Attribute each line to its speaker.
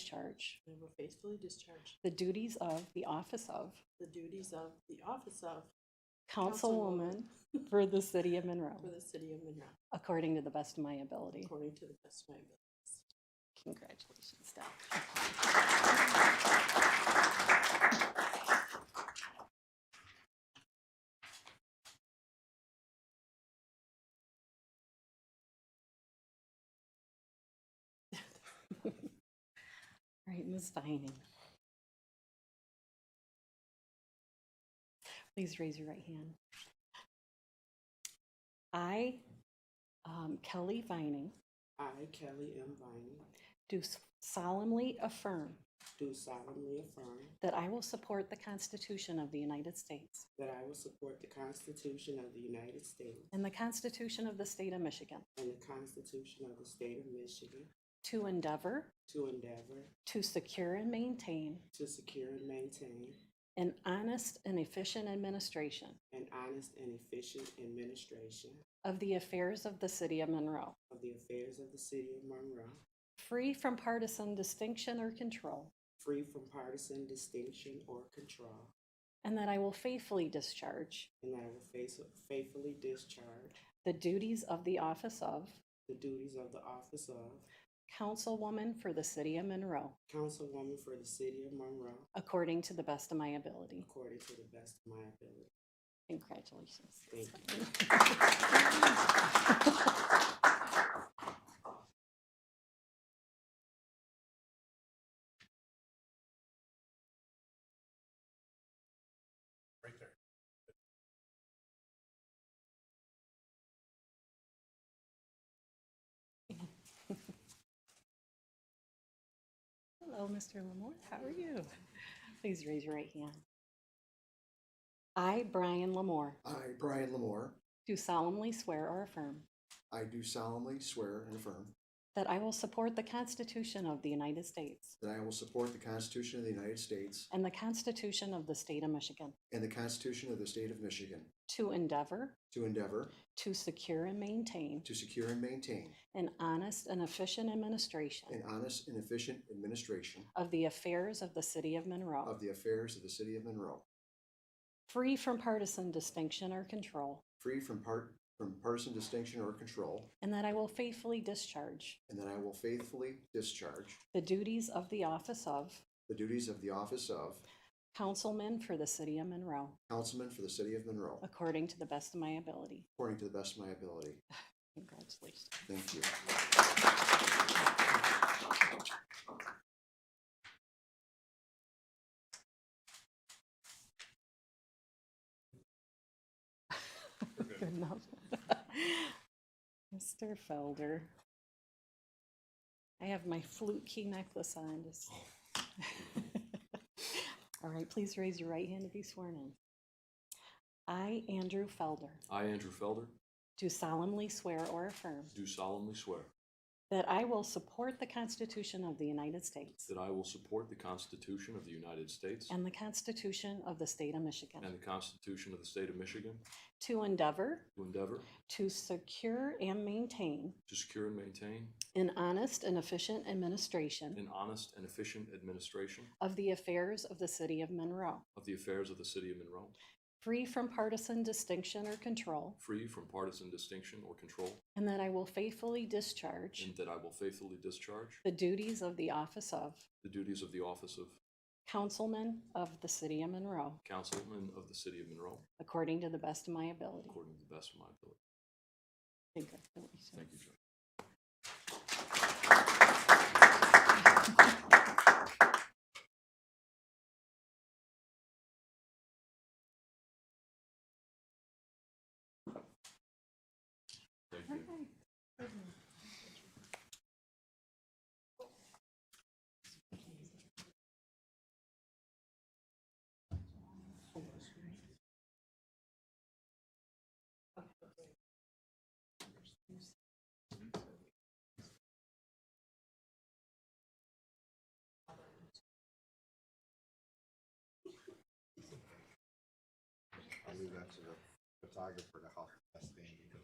Speaker 1: discharge
Speaker 2: and will faithfully discharge
Speaker 1: the duties of the office of
Speaker 2: the duties of the office of
Speaker 1: councilwoman
Speaker 2: Councilwoman.
Speaker 1: for the city of
Speaker 2: for
Speaker 1: Monroe,
Speaker 2: the city of Monroe,
Speaker 1: according to the best of my ability.
Speaker 2: according to the best of my ability.
Speaker 1: Congratulations, Doc. All right, Ms. Vining. Please raise your right hand. I, um, Kelly Vining,
Speaker 2: I, Kelly M. Vining,
Speaker 1: do solemnly affirm
Speaker 2: do solemnly affirm
Speaker 1: that I will support the Constitution of the United States
Speaker 2: that I will support the Constitution of the United States
Speaker 1: and the Constitution of the State of Michigan
Speaker 2: and the Constitution of the State of Michigan
Speaker 1: to endeavor
Speaker 2: to endeavor
Speaker 1: to secure and maintain
Speaker 2: to secure and maintain
Speaker 1: an honest and efficient administration
Speaker 2: an honest and efficient administration
Speaker 1: of the affairs of the City of Monroe,
Speaker 2: of the affairs of the city of Monroe,
Speaker 1: free from partisan distinction or control,
Speaker 2: free from partisan distinction or control,
Speaker 1: and that I will faithfully discharge
Speaker 2: and that I will face- faithfully discharge
Speaker 1: the duties of the office of
Speaker 2: the duties of the office of
Speaker 1: Councilwoman for the City of Monroe
Speaker 2: Councilwoman for the City of Monroe,
Speaker 1: according to the best of my ability.
Speaker 2: according to the best of my ability.
Speaker 1: Congratulations.
Speaker 2: Thank
Speaker 1: Hello, Mr. Lamore, how are you? Please raise your right hand. I, Brian Lamore,
Speaker 3: I, Brian Lamore,
Speaker 1: do solemnly swear or affirm
Speaker 3: I do solemnly swear and affirm
Speaker 1: that I will support the Constitution of the United States
Speaker 3: that I will support the Constitution of the United States
Speaker 1: and the Constitution of the State of Michigan
Speaker 3: and the Constitution of the State of Michigan
Speaker 1: to endeavor
Speaker 3: to endeavor
Speaker 1: to secure and maintain
Speaker 3: to secure and maintain
Speaker 1: an honest and efficient administration
Speaker 3: an honest and efficient administration
Speaker 1: of the affairs of the City of Monroe,
Speaker 3: of the affairs of the City of Monroe,
Speaker 1: free from partisan distinction or control,
Speaker 3: free from part from partisan distinction or control,
Speaker 1: and that I will faithfully discharge
Speaker 3: and that I will faithfully discharge
Speaker 1: the duties of the office of
Speaker 3: the duties of the office of
Speaker 1: Councilman for the City of Monroe,
Speaker 3: Councilman for the City of Monroe
Speaker 1: according to the best of my ability.
Speaker 3: according to the best of my ability.
Speaker 1: Congratulations.
Speaker 3: Thank you.
Speaker 1: Good enough. Mr. Felder. I have my flute key necklace on. just-
Speaker 4: Oh.
Speaker 1: All right, please raise your right hand to be sworn in. I, Andrew Felder,
Speaker 4: I, Andrew Felder,
Speaker 1: do solemnly swear or affirm
Speaker 4: do solemnly swear
Speaker 1: that I will support the Constitution of the United States
Speaker 4: that I will support the Constitution of the United States
Speaker 1: and the Constitution of the State of Michigan.
Speaker 4: and the Constitution of the State of Michigan
Speaker 1: To endeavor
Speaker 4: to endeavor
Speaker 1: to secure and maintain
Speaker 4: to secure and maintain
Speaker 1: an honest and efficient administration
Speaker 4: an honest and efficient administration
Speaker 1: of the affairs of the City of Monroe,
Speaker 4: of the affairs of the City of Monroe,
Speaker 1: free from partisan distinction or control,
Speaker 4: free from partisan distinction or control,
Speaker 1: and that I will faithfully discharge
Speaker 4: and that I will faithfully discharge
Speaker 1: the duties of the office of
Speaker 4: the duties of the office of
Speaker 1: Councilman of the City of Monroe,
Speaker 4: Councilman of the City of Monroe
Speaker 1: according to the best of my ability.
Speaker 4: according to the best of my ability.
Speaker 1: Congratulations.
Speaker 4: Thank you, Judge. Thank you.
Speaker 5: I leave that to the photographer to help us stand.